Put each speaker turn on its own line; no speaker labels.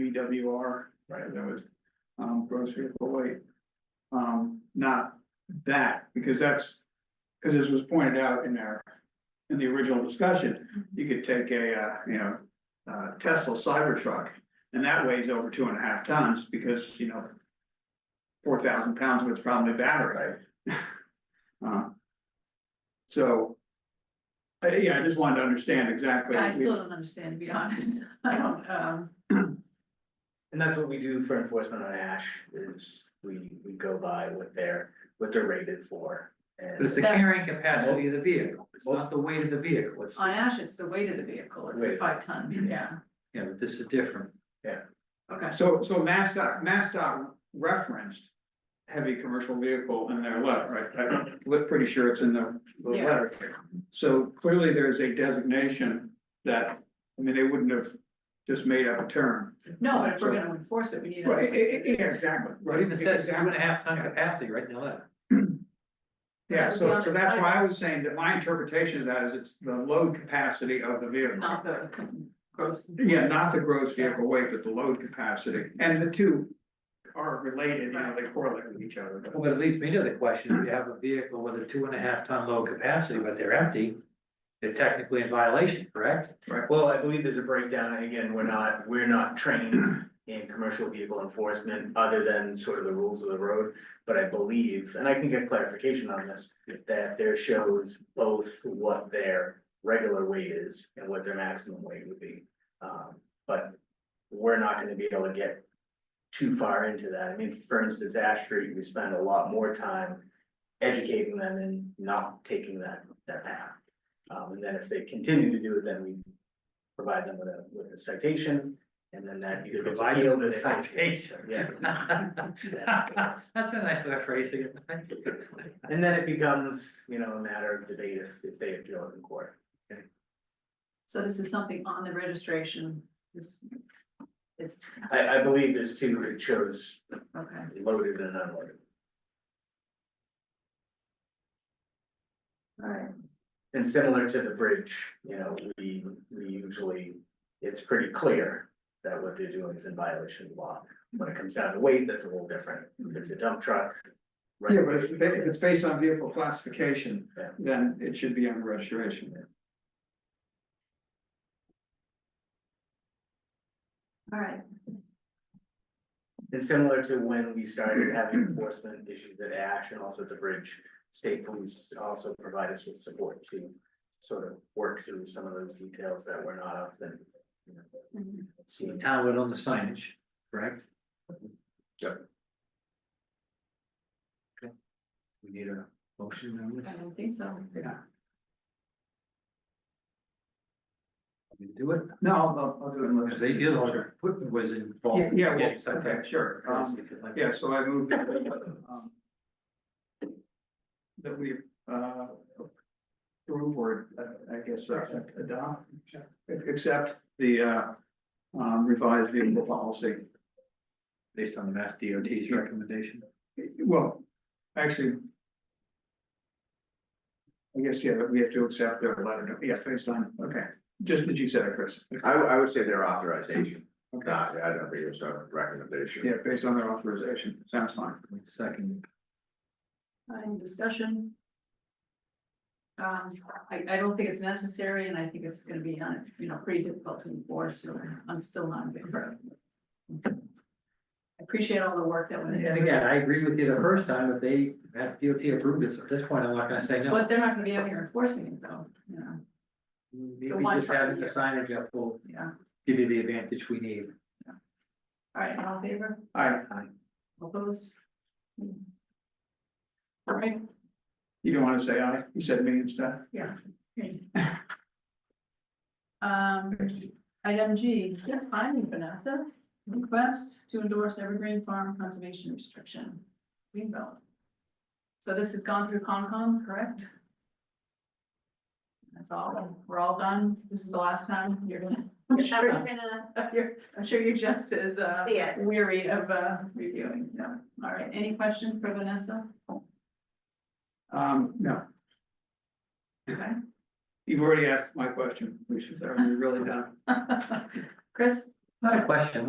DWR, right, that was, um, gross vehicle weight. Um, not that, because that's, because as was pointed out in our, in the original discussion, you could take a, uh, you know, uh, Tesla Cybertruck, and that weighs over two and a half tons, because, you know, four thousand pounds with probably battery. Uh, So, I, yeah, I just wanted to understand exactly.
I still don't understand, to be honest, I don't, um,
And that's what we do for enforcement on ash is we, we go by what they're, what they're rated for.
But it's
And
the carrying capacity of the vehicle, it's not the weight of the vehicle, it's,
on ash, it's the weight of the vehicle, it's the
Right.
five ton, yeah,
you know, this is different.
okay.
So, so Mast dot, Mast dot referenced heavy commercial vehicle in their letter, right? I'm li- pretty sure it's in the, the
Yeah.
letter. So clearly there's a designation that, I mean, they wouldn't have just made up a term.
No, but if we're gonna enforce it, we need to.
Right,
understand
e- e- yeah, exactly.
What even says two and
Exactly.
a half ton capacity right in the letter.
Yeah, so, so that's why I was saying that my interpretation of that is it's the load capacity of the vehicle.
Not the gross.
Yeah, not the gross vehicle weight, but the load capacity, and the two are related, you know, they correlate with each other, but.
Well, it leads me to the question, if you have a vehicle with a two and a half ton load capacity, but they're empty, they're technically in violation, correct?
well, I believe there's a breakdown. And Again, we're not, we're not trained in commercial vehicle enforcement other than sort of the rules of the road. But I believe, and I can get clarification on this, that there shows both what their regular weight is and what their maximum weight would be. Um, but we're not gonna be able to get too far into that. I mean, for instance, Ash Street, we spend a lot more time educating them and not taking that, that path. Um, and then if they continue to do it, then we provide them with a, with a citation, and then that either gets
Provide them
appealed or
with
they-
a citation.
Yeah.
That's a nice way of phrasing it. thank you.
And then it becomes, you know, a matter of debate if, if they appeal it in court.
So this is something on the registration, this. It's,
I, I believe there's two, it shows
okay,
loaded and unloaded.
all right,
And similar to the bridge, you know, we, we usually, it's pretty clear that what they're doing is in violation of law. When it comes down to weight, that's a little different. If it's a dump truck. right?
Yeah, but if, it's ba- if it's based on vehicle classification,
Yeah.
then it should be on registration.
all right,
And similar to when we started having enforcement issues at Ash and also at the bridge, state police also provide us with support to sort of work through some of those details that were not often you know,
Mhm.
So the
seen.
town went on the signage, correct?
Yep.
Okay. We need a motion on this,
I don't think so,
Yeah,
We do it?
no, I'll, I'll do it. in list.
Because they did order, Putin was involved.
Yeah,
in
yeah,
getting
well,
something.
okay, sure, um, yeah, so I moved. um, That we, uh, approve or, uh, I guess, uh, adopt, accept the, uh, um, revised vehicle policy.
Based on the Mass DOT's recommendation.
Well, actually. I guess, yeah, we have to accept their letter, yes, based on, okay, just what you said, Chris.
I, would- I would say their authorization,
Okay,
not, I don't think it's a recommendation.
yeah, based on their authorization, sounds fine.
Second,
any discussion? Um, I, I don't think it's necessary, and I think it's gonna be, uh, you know, pretty difficult to enforce, so I'm still not in favor. I Appreciate all the work that went
and
into it,
again, I agree with you the first time, if they, Mass DOT approved this, at this point, I'm not gonna say no.
but they're not gonna be out here enforcing it though, you know,
Maybe
the one
just
part
having the
here.
signage up will
yeah,
give you the advantage we need.
all right, all in favor,
All right,
all those? All right,
you don't wanna say aye, you said me instead.
Um, item G, yeah, finding Vanessa, request to endorse Evergreen Farm Conservation Restriction, Greenbelt. So this has gone through Concom, correct? That's all, we're all done, this is the last time you're gonna. I'm sure you're gonna. I'm sure you're just as, uh,
See ya.
weary of, uh, reviewing, no, all right, any questions for Vanessa?
Um, no,
Okay.
you've already asked my question, which is, are we really done?
Chris?
Not a question,